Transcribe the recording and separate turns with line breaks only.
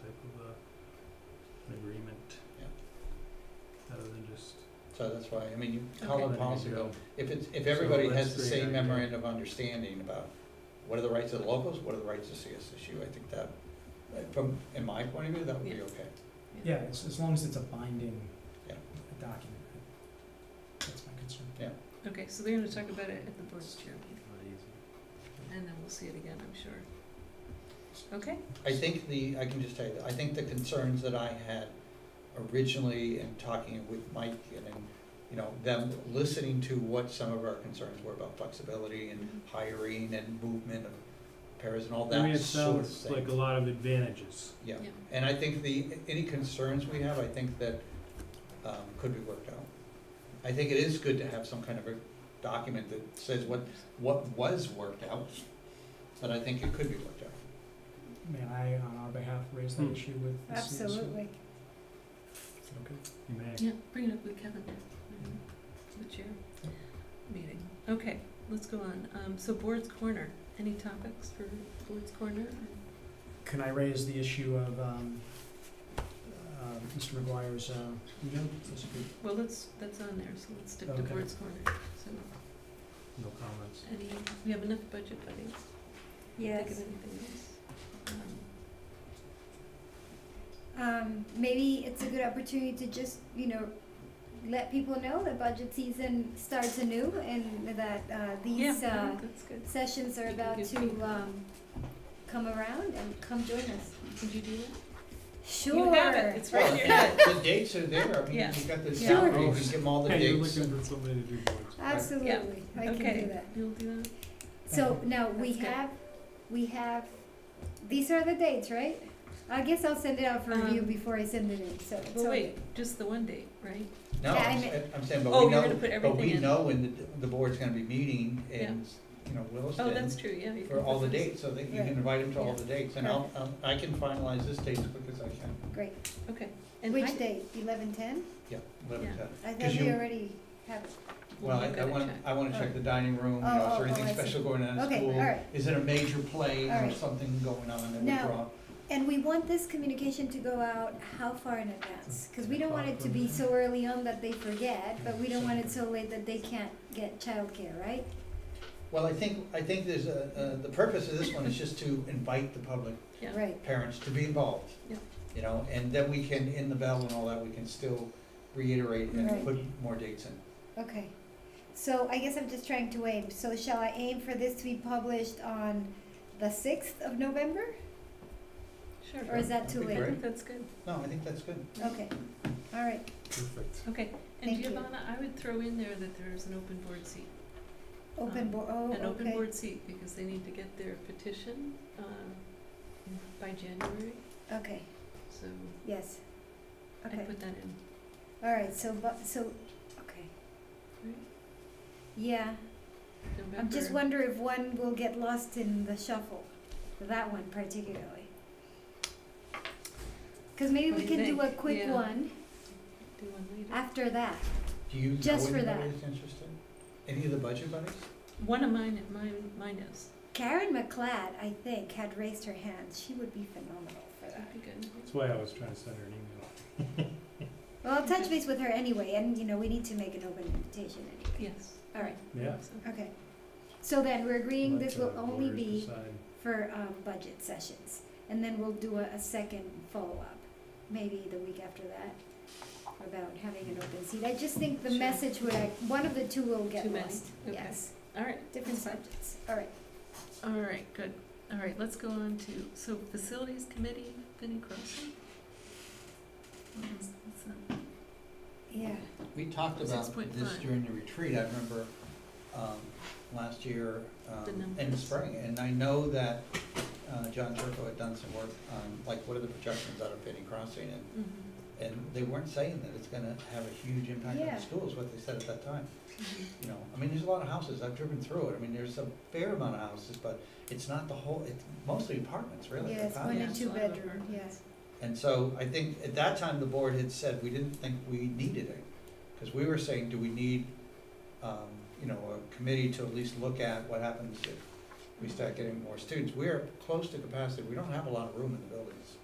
of a, an agreement.
Yeah.
Rather than just,
So that's why, I mean, you, how
Okay.
long
Letting it
policy
go.
go? If it's, if everybody
So
has
let's
the
create
same
that, yeah.
memorandum of understanding about what are the rights of the locals, what are the rights of CSSU, I think that, uh, from, in my point of view, that would be
Yeah.
okay.
Yeah, as, as long as it's a binding
Yeah.
document, that's my concern.
Okay, so they're gonna talk about it at the board's chair meeting,
not easy.
and then we'll see it again, I'm sure. Okay,
I think the, I can just tell you, that I think the concerns that I had originally in talking with Mike and then, you know, them listening to what some of our concerns were about flexibility and
Mm-hmm.
hiring and movement of pairs and all
I mean,
that
it
sort of
sounds
thing.
like a lot of advantages.
Yeah,
Yeah.
and I think the, any concerns we have, I think that, um, could be worked out. I think it is good to have some kind of a document that says what, what was worked out, but I think it could be worked out.
May I, on our behalf, raise that
Hmm.
issue with the CSO?
Absolutely.
Is that okay?
You may.
yeah, bring it up with Kevin, um, the chair meeting. Okay, let's go on. Um, so Board's Corner, any topics for Board's Corner?
Can I raise the issue of, um, uh, Mr. McGuire's, uh, email? That's a good-
Well, that's, that's on there, so let's stick to
Okay.
Board's Corner. So,
No comments.
any, we have enough budget, buddy? Think of
Yes.
anything else? Um,
Um, maybe it's a good opportunity to just, you know, let people know that budget season starts anew and that, uh,
Yeah,
these,
I
uh,
think that's good.
sessions are
You can
about
give
to,
people-
um, come around and come join us.
Did you do that?
Sure.
You have it, it's right here.
Well, The dates are there, I mean,
Yeah.
you got the
Yeah.
calendar, you can give them all the
Hey, you're
dates.
looking for somebody to do boards.
Absolutely, I can do that.
Okay. You'll do that?
So now we
That's good.
have, we have, these are the dates, right? I guess I'll send it out for review
Um,
before I send it in, so. it's
Well,
all-
wait, just the one date, right?
No,
Yeah, I
I'm,
mean-
I'm saying,
Oh,
but we
you're gonna
know, but
put
we
everything in.
know when the, the board's gonna be meeting and, you know,
Oh, that's
Williston
true, yeah. you
for
can
all the
put this-
dates, so that you can
Right.
invite them to all
Yeah.
the dates. And I'll, um, I can finalize this date as quick as I can.
Great.
Okay. And I-
Which date? Eleven ten?
Yeah, let
Yeah.
them tell.
I thought
'Cause
we
you-
already have it.
Well, I,
You've
I
gotta
want,
check.
I want to check the dining room, you
Oh,
know, is
oh,
there
oh,
anything
I see.
special going on at
Okay,
school?
all right.
Is it a major play
All
or
right.
something going on that we
Now-
brought?
And we want this communication to go out how far in advance? Cause we don't want it to be so early on that they forget, but we don't want it so late that they can't get childcare, right?
Well, I think, I think there's a, uh, the purpose of this one is just to invite the public,
Yeah.
Right,
parents to be involved.
Yeah.
You know, and then we can, in the bell and all that, we can still reiterate and
Right.
put more dates in.
okay. So I guess I'm just trying to aim, so shall I aim for this to be published on the sixth of November?
Sure.
Or is that too
That'd be
I
late?
great.
think that's good.
No, I think that's good.
Okay, all right,
Perfect.
Okay. And
Thank you.
Giovanna, I would throw in there that there's an open board seat.
open board, oh,
Um, An open
okay,
board seat, because they need to get their petition, um, by January,
okay,
so
yes.
I
Okay,
put that in.
all right, so, bu- so, okay.
Right.
Yeah, I'm just
November-
wonder if one will get lost in the shuffle, that one particularly. Cause maybe
What
we
do you
can do a
think?
quick
Yeah.
one
Do one later.
after that,
Do you know
Just for
anybody
that.
that's interested? Any of the budget buddies?
One of mine, mine, mine is.
Karen McLeod, I think, had raised her hand, she would be phenomenal for that.
That'd be good.
That's why I was trying to send her an email.
Well, I'll touch base with her anyway, and you know, we need to make an open invitation anyway.
Yes.
All right.
Yeah.
So,
Okay, so then we're agreeing
Let
this
the
will only
voters
be
uh, decide.
for, um, budget sessions, and then we'll do a, a second follow-up, maybe the week after that, about having an open seat. I just think the
Sure.
message would, one of the two will
Too
get
many,
lost.
okay.
Yes,
All right.
different
That's fine.
subjects, all right.
All right, good. All right, let's go on to, so facilities committee, Penny Crossing?
Mm-hmm.
What is this, uh,
Yeah,
We talked about this
6.5.
during the retreat, I remember, um, last year,
The
um, in the
numbers.
spring. And I know that, uh, John Turco had done some work on, like, what are the projections out of Penny Crossing? And
mhm,
And they weren't saying that it's gonna have a huge impact on
Yeah. Mm-hmm.
the schools, what they said at that time,
mhm.
you know, I mean, there's a lot of houses, I've driven through it, I mean, there's a fair amount of houses, but it's not the whole, it's mostly apartments, really,
yeah,
the
it's one
condos.
and
Yeah.
two
Lot of
bedroom, yeah,
apartments.
And so I think at that time, the board had said we didn't think we needed it, because we were saying, do we need, um, you know, a committee to at least look at what happens if we start getting more students, we're close to capacity, we don't have a lot of room in the buildings.